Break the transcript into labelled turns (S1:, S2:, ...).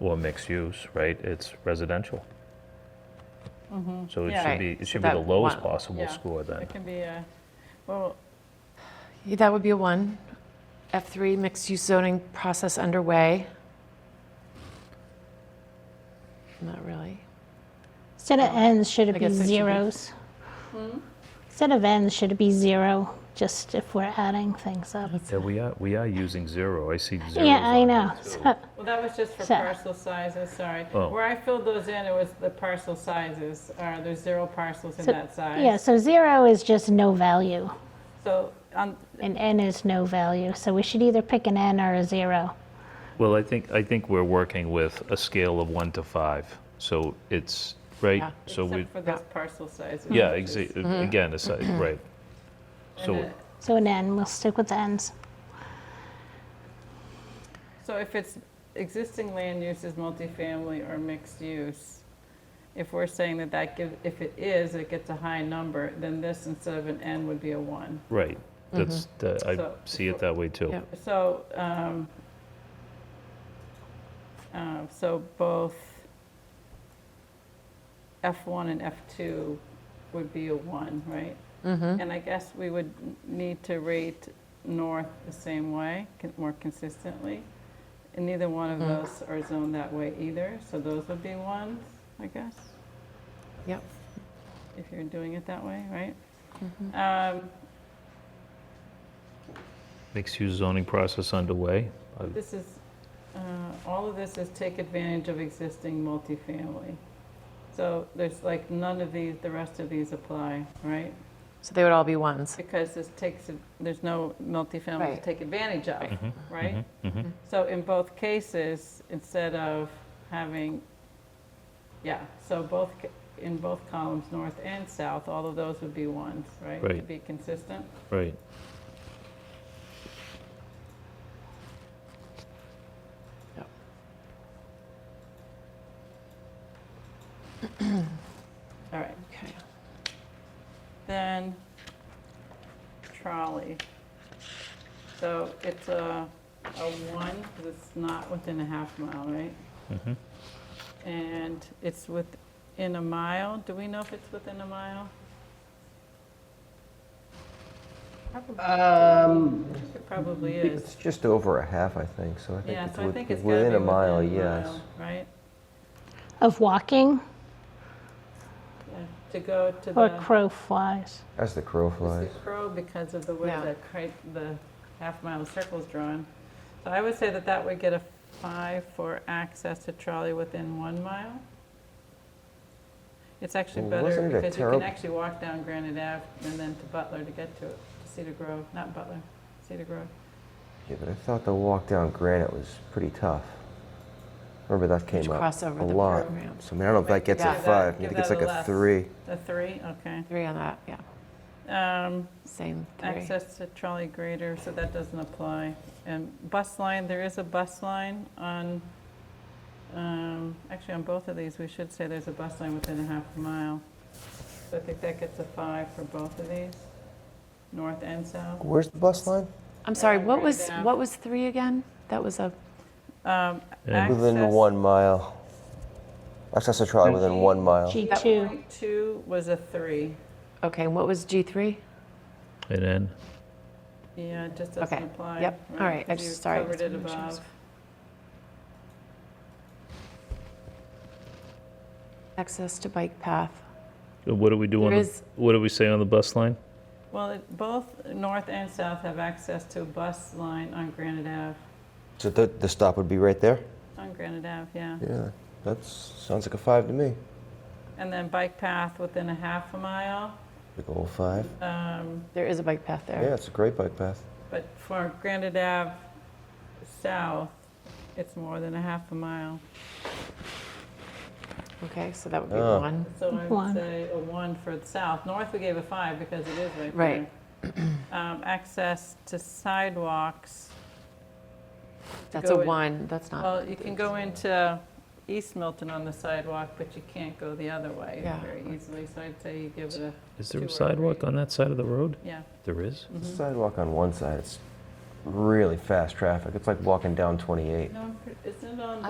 S1: or mixed use, right? It's residential. So it
S2: Mm-hmm. Yeah.
S1: should be, it
S2: Right, so
S1: should be the
S2: that
S1: lowest
S2: one-
S1: possible
S2: yeah.
S1: score then.
S2: It can be a, well,
S3: Yeah, That would be a one. F3, mixed-use zoning process underway. Not really.
S4: Instead of n's, should
S3: I
S4: it be
S3: guess it should be-
S4: zeros? Instead of n's, should it be zero, just if we're adding things up?
S1: Yeah, we are, we are using zero. I see zeros
S4: Yeah, I
S1: on
S4: know.
S1: here, too.
S4: So-
S2: well, that was just for
S4: So-
S2: parcel sizes, sorry.
S1: Oh.
S2: Where I filled those in, it was the parcel sizes, or there's zero parcels in
S4: so-
S2: that size.
S4: Yeah, so zero is just no value,
S2: So, um, on,
S4: and n is no value, so we should either pick an n or a zero.
S1: Well, I think, I think we're working with a scale of one to five, so it's,
S3: Yeah.
S1: right? So we,
S2: except for Mm-hmm. those parcel sizes.
S1: yeah,
S2: which is-
S1: exa- again, it's, like- right. So,
S2: it-
S4: So an n, we'll stick with the n's.
S2: So if it's existing land use is multifamily or mixed use, if we're saying that that gives, if it is, it gets a high number, then this instead of an N would be a one.
S1: right, that's, the- I
S2: Mm-hmm. So-
S1: see it that way too.
S3: Yeah.
S2: So, um, um, so both F1 and F2 would be a one, right?
S3: Mm-hmm.
S2: And I guess we would n- need to rate north the same way, con- more consistently. And neither one of those are zoned that way either, so those would be ones, I guess,
S3: Yep.
S2: if you're doing it that way, right? Um,
S1: Mixed-use zoning process underway. I-
S2: This is, uh, all of this is take advantage of existing multifamily. So there's like none of these, the rest of these apply, right?
S3: So they would all be ones.
S2: Because this takes, there's no multifamily to
S3: Right.
S2: take advantage of, right? So in both cases, instead of having, yeah, so both, ca- in both columns, north and south, all of those would be ones, right? To
S1: Right.
S2: be consistent.
S1: Right.
S3: Yep.
S2: All right,
S3: Okay.
S2: then trolley. So it's a, a one, 'cause it's not within a half mile, right?
S5: Mm-hmm.
S2: And it's within a mile, do we know if it's within a mile? Probably-
S5: Um,
S2: It probably
S5: it's
S2: is,
S5: just over a half, I think, so I think
S2: yeah,
S5: it's
S2: so I
S5: with-
S2: think it's gotta be
S5: within a mile, yes.
S2: mile, Right,
S4: Of walking
S2: Yeah, to go to the.
S4: or
S3: uh,
S4: crow flies?
S5: As the crow
S2: It's
S5: flies.
S2: the crow because of the way
S3: Yeah.
S2: the, cri- the half-mile circle's drawn. So I would say that that would get a five for access to trolley within one mile. It's actually
S5: Well,
S2: better
S5: wasn't it a
S2: because you can
S5: terrib-
S2: actually walk down Granite Ave and then to Butler to get to it, to Cedar Grove, not Butler, Cedar Grove.
S5: Yeah, but I thought the walk down Granite was pretty tough. Remember that came up
S3: cross over
S5: a
S3: the
S5: lot.
S3: program.
S5: So I mean, I don't know if that gets a
S3: Yeah.
S5: five. I
S2: Give
S5: think it's
S2: that
S5: like
S2: a
S5: a
S2: less.
S5: three.
S2: The three, okay.
S3: Three on that, yeah.
S2: Um,
S3: Same three.
S2: Access to trolley grader, so that doesn't apply. And bus line, there is a bus line on, um, actually, on both of these, we should say there's a bus line within a half a mile. So I think that gets a five for both of these, north and south.
S5: Where's the bus line?
S3: I'm sorry, what
S2: Right
S3: was,
S2: now.
S3: what was three again? That was a,
S2: Um,
S1: Yeah.
S5: Within the
S2: access-
S5: one mile. Access to trolley within one mile.
S4: G2,
S2: Point Two was a three.
S3: okay, and what was G3?
S1: And then,
S2: Yeah, it just
S3: Okay,
S2: doesn't apply.
S3: yep, all right, I
S2: 'cause you
S3: just- sorry,
S2: covered
S3: just
S2: it
S3: wanted to make sure I was-
S2: above.
S3: Access to bike path.
S1: what do we do on,
S3: There
S1: the-
S3: is-
S1: what do we say on the bus line?
S2: Well, it- both north and south have access to a bus line on Granite Ave,
S5: So the, the stop would be right there?
S2: on Granite Ave, yeah.
S5: Yeah, that sounds like a five to me.
S2: And then bike path within a half a mile,
S5: Big old five.
S3: There is a bike path there.
S5: Yeah, it's a great bike path.
S2: but for Granite Ave South, it's more than a half a mile.
S3: Okay, so that would be
S5: Oh.
S3: one.
S2: So I would
S4: One.
S2: say a one for the south. North, we gave a five because it is right there.
S3: Right.
S2: Um, Access to sidewalks,
S3: That's
S2: go
S3: a
S2: in-
S3: one, that's not,
S2: well, you can go into East Milton on the sidewalk, but you can't go the other way
S3: Yeah.
S2: very easily, so I'd say you give it a,
S1: Is there a
S2: Two or
S1: sidewalk
S2: three.
S1: on that side of the road?
S2: yeah.
S1: There is?
S2: Mm-hmm.
S5: The sidewalk on one side, it's really fast traffic. It's like walking down 28.
S2: No, I'm pre- isn't it on